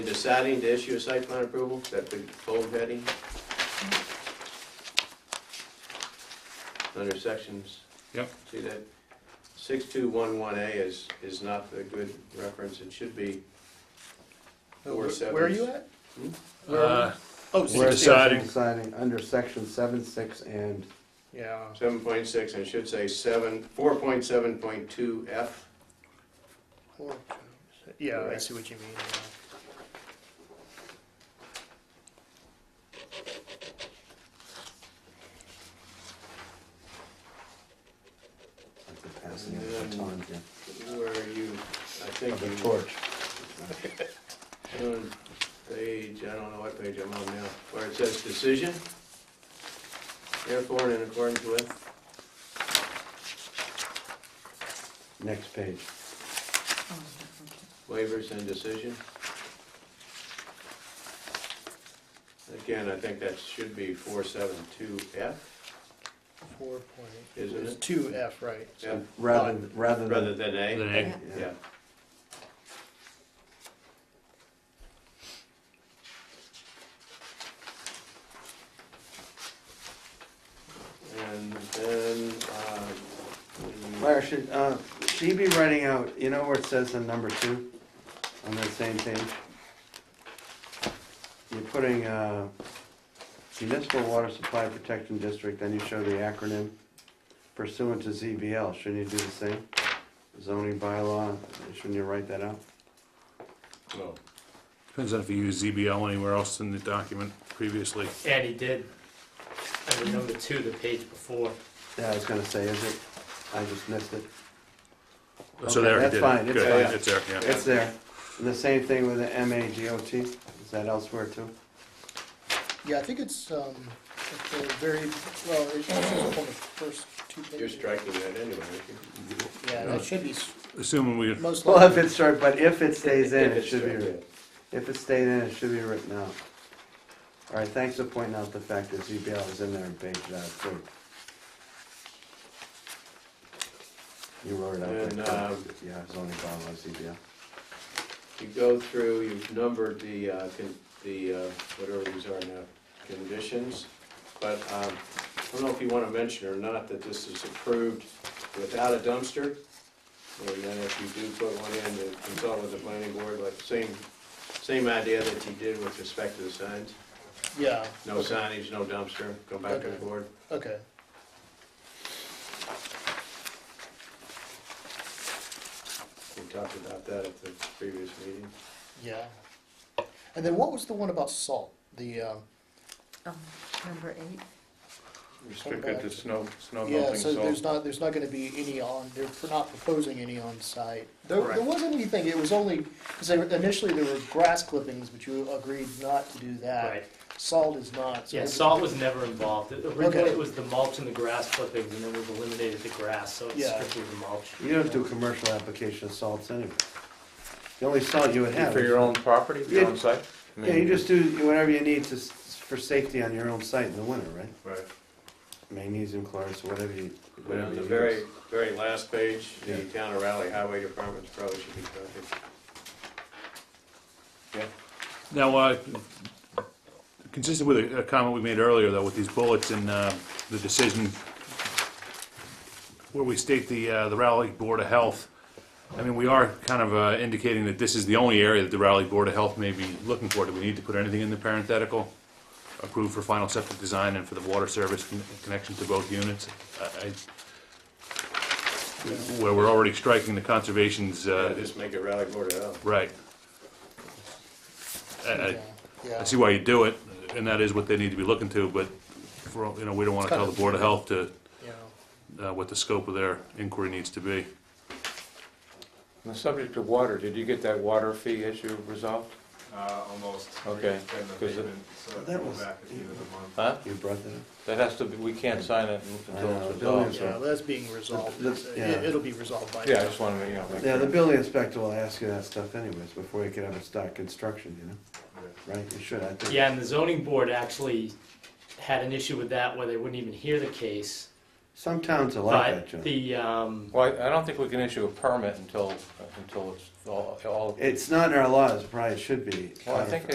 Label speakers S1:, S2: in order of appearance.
S1: Deciding to issue a site plan approval, is that the bold heading? Under sections.
S2: Yep.
S1: See that six-two-one-one-A is, is not a good reference, it should be four seven.
S3: Uh, Where are you at? Where are
S2: Uh,
S3: Oh,
S2: We're
S3: 16.
S2: deciding.
S4: Deciding under section seven, six, and,
S3: Yeah,
S1: Seven point six, and it should say seven, four point seven point two F.
S3: Or- yeah, I
S1: Correct.
S3: see what you mean. yeah.
S4: that's the passing of the baton here,
S1: Where are you, I think.
S4: of the
S1: you-
S4: torch.
S1: on page, I don't know what page I'm on now, where it says decision. Therefore, and in accordance with,
S4: Next page,
S1: waivers and decision. Again, I think that should be four seven two F,
S3: Four point,
S1: isn't
S3: it's
S1: it?
S3: two F, right?
S1: Yeah,
S4: rather, than- rather
S1: Rather
S4: than,
S1: than
S2: Than
S1: A,
S2: A.
S4: yeah,
S1: yeah. And then, uh, um,
S4: Larry, should, uh, she be writing out, you know where it says in number two, on that same page? You're putting, uh, municipal water supply protection district, then you show the acronym pursuant to ZBL, shouldn't you do the same? Zoning bylaw, shouldn't you write that out?
S1: well,
S2: Depends on if you use ZBL anywhere else in the document previously.
S5: And he did, under number two, the page before.
S4: Yeah, I was gonna say, is it, I just missed it.
S2: So
S4: Okay,
S2: there, I
S4: that's
S2: did it.
S4: fine, it's
S2: Good,
S1: fine.
S2: It's there, yeah.
S4: It's there. And the same thing with the M A G O T, is that elsewhere too?
S3: Yeah, I think it's, um, at the very, well, it's up on the first two pages.
S1: You're striking that anyway, aren't
S3: Yeah, that should be s-
S2: Assuming we,
S3: most
S4: Well, if
S3: likely.
S4: it's short, but if it stays
S1: you? If
S4: in, it
S1: it's
S4: should
S1: striking.
S4: be, if it stayed in, it should be written out. All right, thanks for pointing out the fact that ZBL is in there and paged out too. You wrote it out
S1: And,
S4: there.
S1: um,
S4: too. Yeah, zoning bylaw, ZBL.
S1: You go through, you've numbered the, uh, con- the, uh, whatever these are now, conditions, but um, I don't know if you want to mention or not that this is approved without a dumpster. And then if you do put one in, to consult with the planning board, like same, same idea that you did with respect to the signs.
S3: Yeah,
S1: No signage, no dumpster, go back to the board.
S3: okay.
S1: We talked about that at the previous meeting.
S3: Yeah. And then what was the one about salt? The, um,
S6: Um, Number eight,
S3: Restricted to
S2: snow, snow
S3: yeah, so there's not, there's not gonna be any on, they're not proposing any on site. There, there
S1: Correct.
S3: wasn't anything, it was only, because initially there were grass clippings, but you agreed not to do that.
S5: Right.
S3: Salt is not. Uh, so
S5: Yeah,
S3: it-
S5: salt was never involved. It- Originally,
S3: Okay.
S5: it was the mulch and the grass clippings, and then we've eliminated the grass, so it's
S3: Yeah.
S5: strictly the mulch.
S4: You don't do commercial application of salts anyway. The only salt you would have. is-
S7: own property,
S4: your own
S7: site?
S4: Yeah, you just do whatever you need to, s- for safety on your own site in the winter, right?
S1: Right.
S4: magnesium chloride, so whatever you,
S1: But
S4: whatever
S1: on
S4: you
S1: the
S4: use.
S1: very, very last page, the
S4: Yeah.
S1: town of Raleigh Highway Department probably should be covered. Yeah,
S2: Now, uh, consistent with a a comment we made earlier, though, with these bullets and uh, the decision where we state the uh, the Raleigh Board of Health, I mean, we are kind of uh, indicating that this is the only area that the Raleigh Board of Health may be looking for. Do we need to put anything in the parenthetical? Approved for final septic design and for the water service con- connection to both units? I- I- Where we're already striking the conservation's, uh,
S1: just make it Raleigh Board of Health.
S2: right. I- I- uh, I
S3: Yeah,
S2: see why you do it, and that is what they need to be looking to, but, for all- you know, we don't want to tell the Board of Health to,
S3: yeah.
S2: uh, what the scope of their inquiry needs to be.
S7: The subject of water, did you get that water fee issue resolved?
S8: Uh, almost.
S7: Okay,
S8: It's been the
S7: 'cause it-
S8: payment, so
S4: That
S8: go
S4: was-
S8: back at the end of the month.
S7: Huh?
S4: You brought that up.
S7: That has to be, we can't sign it
S4: I know,
S7: until it's
S4: buildings
S7: resolved.
S3: Yeah, that's being resolved.
S4: The- the-
S3: It-
S4: yeah.
S3: It'll be resolved by.
S7: Yeah, I just wanted to, you know. make
S4: Yeah, the
S7: sure.
S4: building inspector will ask you that stuff anyways, before you can ever start construction, you know? Right, you should, I think.
S5: Yeah, and the zoning board actually had an issue with that where they wouldn't even hear the case
S4: Some towns are like that,
S5: But
S4: John.
S5: the, um,
S7: Well, I I don't think we can issue a permit until, until it's all, all
S4: It's not in our laws, probably it should be.
S7: Well, I think